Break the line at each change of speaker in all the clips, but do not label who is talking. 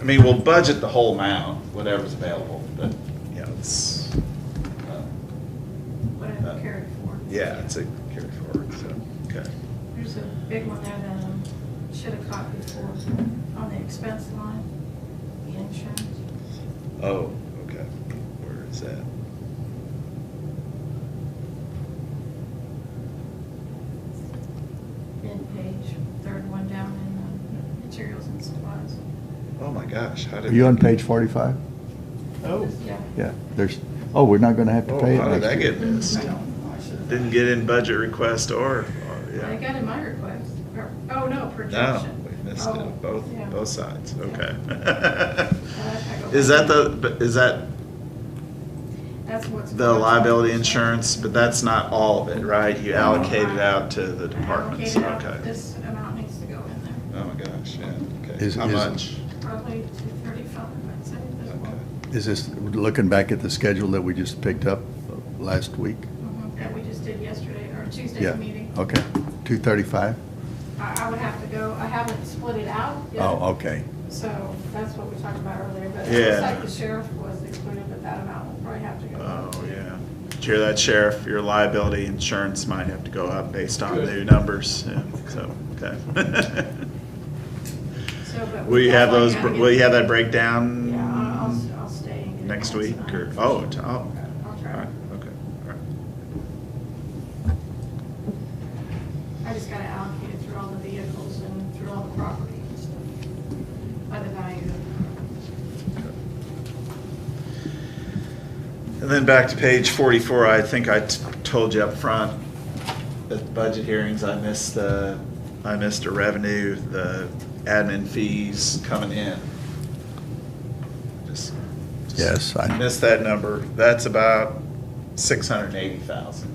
I mean, we'll budget the whole amount, whatever's available, but, you know, it's, uh,
what I've carried for.
yeah, it's a carry forward, so, okay.
There's a big one there that I should have caught before, on the expense line, the insurance.
Oh, okay, where is that?
End page, third one down in the materials and supplies.
Oh my gosh, how
Are
did?
you on page forty-five?
Oh,
Yeah.
Yeah, there's, oh, we're not gonna have to
Oh,
pay it
how did
next
I
year.
get missed? Didn't get in budget request or, or, yeah.
I got in my request, or, oh, no,
No,
projection.
we missed
Oh,
it, both,
yeah.
both sides,
Yeah.
okay.
I go
Is that
back.
the, but is that
That's what's.
the liability insurance, but that's not all of it, right? You allocate it out to the departments,
Allocated out.
okay.
This amount needs to go in there,
Oh my gosh, yeah, okay.
Is-
How
is-
much?
probably two thirty-five, I'd say, as well.
Okay.
Is this, looking back at the schedule that we just picked up last week?
Mhm, That we just did yesterday, or Tuesday's
Yeah,
meeting.
okay, two thirty-five?
I, I would have to go, I haven't split it out yet.
Oh, okay,
So that's what we talked about earlier, but it
Yeah.
looks like the sheriff was included, but that amount will probably have to go. up.
Oh, yeah. Did you hear that, Sheriff? Your liability insurance might have to go up based on
Good.
new numbers, yeah, so, okay.
So, but.
Will you have those,
definitely
will you have
gotta
that breakdown?
get- Yeah, I'll, I'll, I'll stay. and get it
Next
done
week,
tonight.
or, oh, t- oh,
I'll
all
try.
right, okay, all right.
I just gotta allocate it through all the vehicles and through all the property and stuff, by the value.
And then back to page forty-four, I think I t- told you up front, at budget hearings, I missed the, I missed the revenue, the admin fees coming in. Just- just
Yes, I-
Missed that number, that's about six hundred and eighty thousand.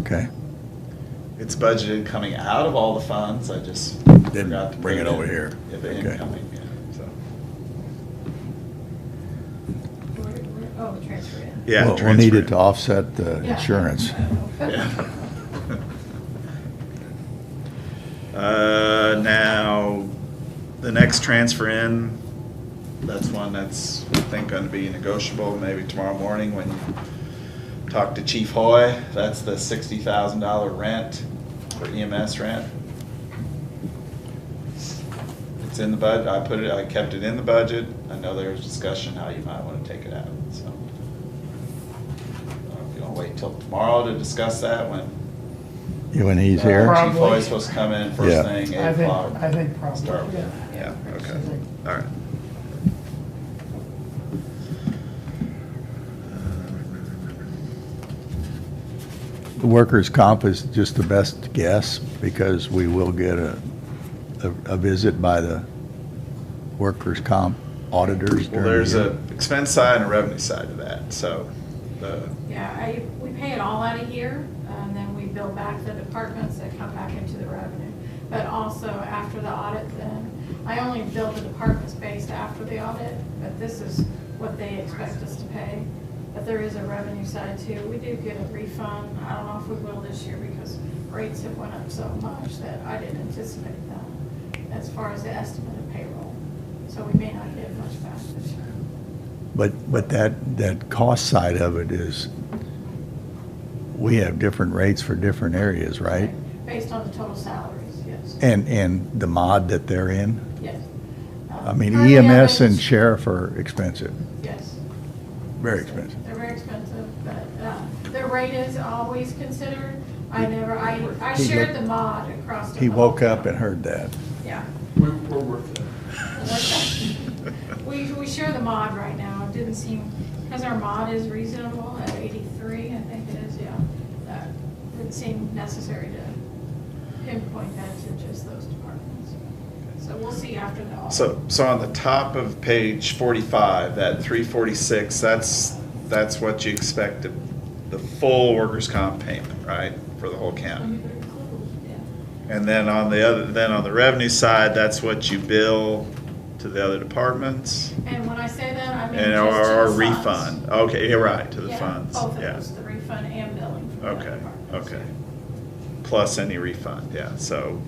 okay.
It's budgeted coming out of all the funds, I just forgot
Didn't
to.
bring
put
it over
in
here.
at The
Okay.
incoming, yeah, so.
Where- where- Oh, the transfer in.
Yeah,
Well, We'll
transfer
need
in.
it to offset the
Yeah.
insurance.
Yeah. Uh, now, the next transfer in, that's one that's, I think, gonna be negotiable, maybe tomorrow morning when you talk to Chief Hoy, that's the sixty thousand dollar rent, for EMS rent. It's in the bud, I put it, I kept it in the budget, I know there's discussion how you might wanna take it out, so. uh, Are we gonna wait till tomorrow to discuss that when?
You When he's
uh,
here?
Chief Hoy's supposed to come in
Yeah.
first thing,
I
eight
think,
o'clock.
I think probably,
Start with it.
yeah.
Yeah, okay,
Absolutely.
all right.
The workers' comp is just the best guess because we will get a, a a visit by the workers' comp auditors
Well,
during the
there's
year.
a expense side and a revenue side to that, so, uh,
Yeah, I, we pay it all out of here, and then we bill back the departments that come back into the revenue. But also after the audit, then, I only bill the departments based after the audit, but this is what they expect us to pay. But there is a revenue side too. We do get a refund. I don't know if we will this year because rates have went up so much that I didn't anticipate that as far as the estimate of payroll. So we may not get much back this year.
But, but that, that cost side of it is, we have different rates for different areas, right?
Based on the total salaries, yes.
And, and the mod that they're in.
Yes.
I mean,
Currently, I
EMS and
think-
sheriff are expensive,
Yes.
very expensive.
They're very expensive, but uh, their rate is always considered. I never, I, I
He
shared
woke-
the mod across. the
He
whole
woke up
town.
and heard that.
Yeah.
We're, we're worth it.
We, we share the mod right now. It didn't seem, because our mod is reasonable at eighty-three, I think it is, yeah. That Didn't seem necessary to pinpoint that to just those departments. So we'll see after the audit.
so, so on the top of page forty-five, that three forty-six, that's, that's what you expect to, the full workers' comp payment, right, for the whole county?
Yeah.
And then on the other, then on the revenue side, that's what you bill to the other departments?
And when I say that, I mean
And
just to
or
the funds.
refund, okay, you're right, to the
Yeah,
funds,
Both of
yeah.
those, the refund and billing. from the
Okay,
departments,
okay.
yeah.
Plus any refund, yeah, so